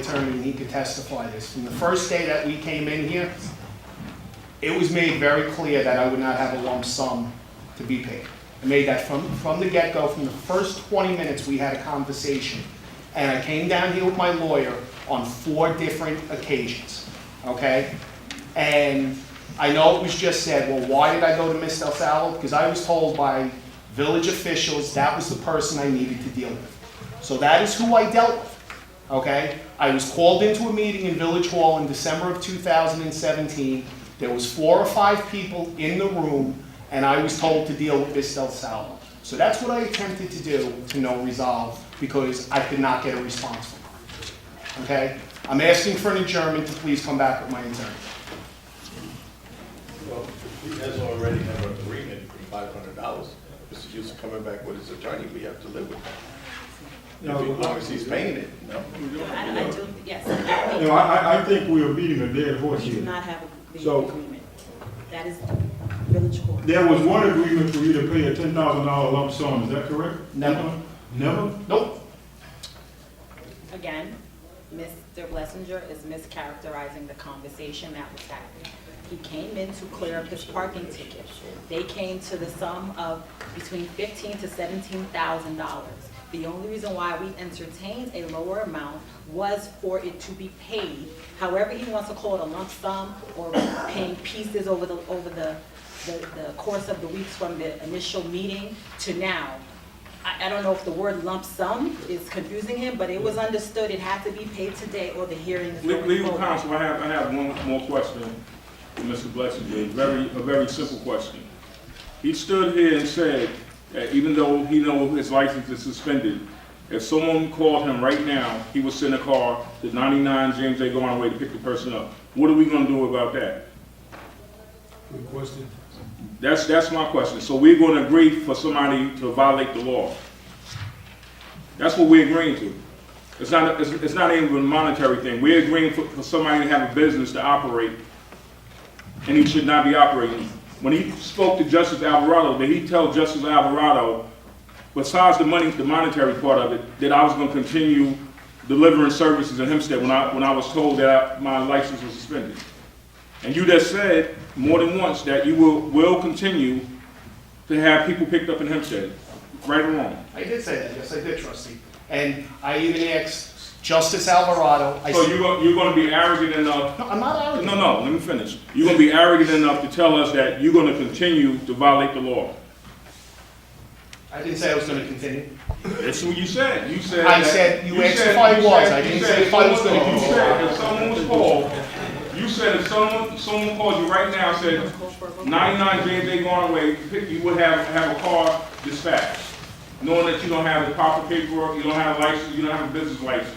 attorney, and he can testify this. From the first day that we came in here, it was made very clear that I would not have a lump sum to be paid. I made that from, from the get-go, from the first 20 minutes, we had a conversation. And I came down here with my lawyer on four different occasions, okay? And I know it was just said, well, why did I go to Ms. Del Salvo? Because I was told by village officials that was the person I needed to deal with. So that is who I dealt with, okay? I was called into a meeting in Village Hall in December of 2017. There was four or five people in the room, and I was told to deal with Ms. Del Salvo. So that's what I attempted to do to no resolve, because I could not get a response from her, okay? I'm asking for an adjournment to please come back with my attorney. Well, he has already had an agreement for five hundred dollars. Mr. Hughes coming back with his attorney, we have to live with that. If he- As long as he's paying it, no? I, I do, yes, I No, I, I, I think we are beating a dead horse think we do here. not have a- the So- agreement. That is village court. There was one agreement for you to pay a ten thousand dollar lump sum, is that correct? Never. Never? Nope, Again, Mr. Blessinger is mischaracterizing the conversation that was happening. He came in to clear up his parking ticket. They came to the sum of between fifteen to seventeen thousand dollars. The only reason why we entertained a lower amount was for it to be paid. However, he wants to call it a lump sum or paying pieces over the, over the, the, the course of the weeks from the initial meeting to now. I, I don't know if the word lump sum is confusing him, but it was understood it had to be paid today or the hearing is Le- going Legal forward. counsel, I have, I have one more question for Mr. Blessinger, a very, a very simple question. He stood here and said that even though he know his license is suspended, if someone called him right now, he would send a car to 99 James A. Garner Way to pick the person up. What are we gonna do about that? Good question. That's, that's my question. So we're gonna agree for somebody to violate the law? That's what we're agreeing to. It's not, it's, it's not even a monetary thing. We're agreeing for, for somebody to have a business to operate, and he should not be operating. When he spoke to Justice Alvarado, did he tell Justice Alvarado, besides the money, the monetary part of it, that I was gonna continue delivering services in Hempstead when I, when I was told that I- my license was suspended? And you just said more than once that you will, will continue to have people picked up in Hempstead, right or wrong. I did say that, yes, I did, trustee. And I even asked Justice Alvarado, I So said, you're, go- you're gonna be arrogant enough, no, I'm not out of no, no, let me finish. You're gonna be arrogant enough to tell us that you're gonna continue to violate the law. I didn't say I was gonna continue. That's what you said. You said. I that- said you asked said- if I you was. said- I you didn't said say if I was gonna someone- do You it. said if someone was called, you said if someone, someone called you right now, said ninety-nine James A. Garner Way, pick- you would have, have a car dispatched. Knowing that you don't have the proper paperwork, you don't have a license, you don't have a business license.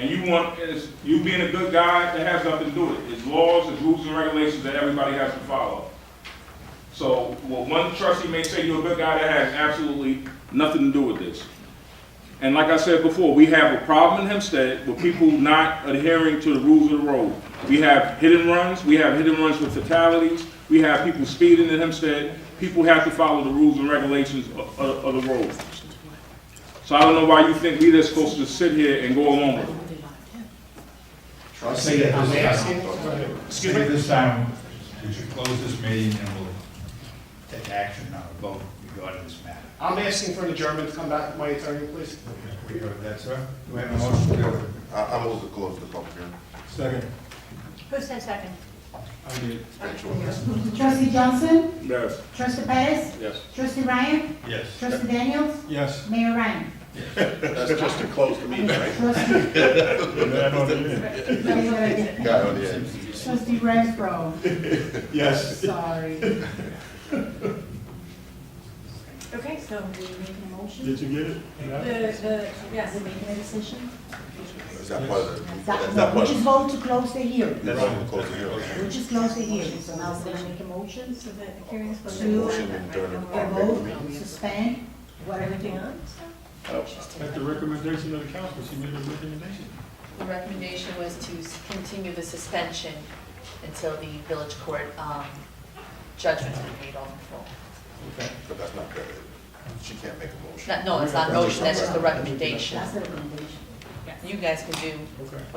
And you want, is, you being a good guy, that has nothing to do with it. It's laws, it's rules and regulations that everybody has to follow. So, well, one trustee may say you're a good guy, that has absolutely nothing to do with this. And like I said before, we have a problem in Hempstead with people not adhering to the rules of the road. We have hit and runs, we have hit and runs with fatalities, we have people speeding in Hempstead. People have to follow the rules and regulations of, of- of the road. So I don't know why you think we are supposed to sit here and go along with it. Trustee, I'm asking, excuse Excuse me, me, this time, would you close this meeting and we'll take action on a vote regarding this matter? I'm asking for an adjournment to come back with my attorney, please. We heard that, sir? Do we have a motion? to do I, I move to close the public hearing. Second. Who said second? I did. Trustee Johnson? Yes. Trustee Perez? Yes. Trustee Ryan? Yes. Trustee Daniels? Yes. Mayor Ryan? That's just to close the meeting, right? Trustee, that's what I did. Got it, yeah. Trustee Renfro, Yes. sorry. Okay, so we make a motion? Did you get it? The, the, yes. We're making a decision? Is that part of it? That's No, not we part just of it. vote to close the hearing. That's not close the hearing. We just close the hearing, so now we're gonna make a motion So that the hearing's supposed to. to Motion and during the a public vote, suspend, whatever they want. At the recommendation of the council, she made a recommendation. The recommendation was to s- continue the suspension until the village court um, judgment is made on the full. but that's not good. She can't make a motion. Not- No, it's not a motion, that's just the recommendation. That's the recommendation. Yes. you guys can do Okay.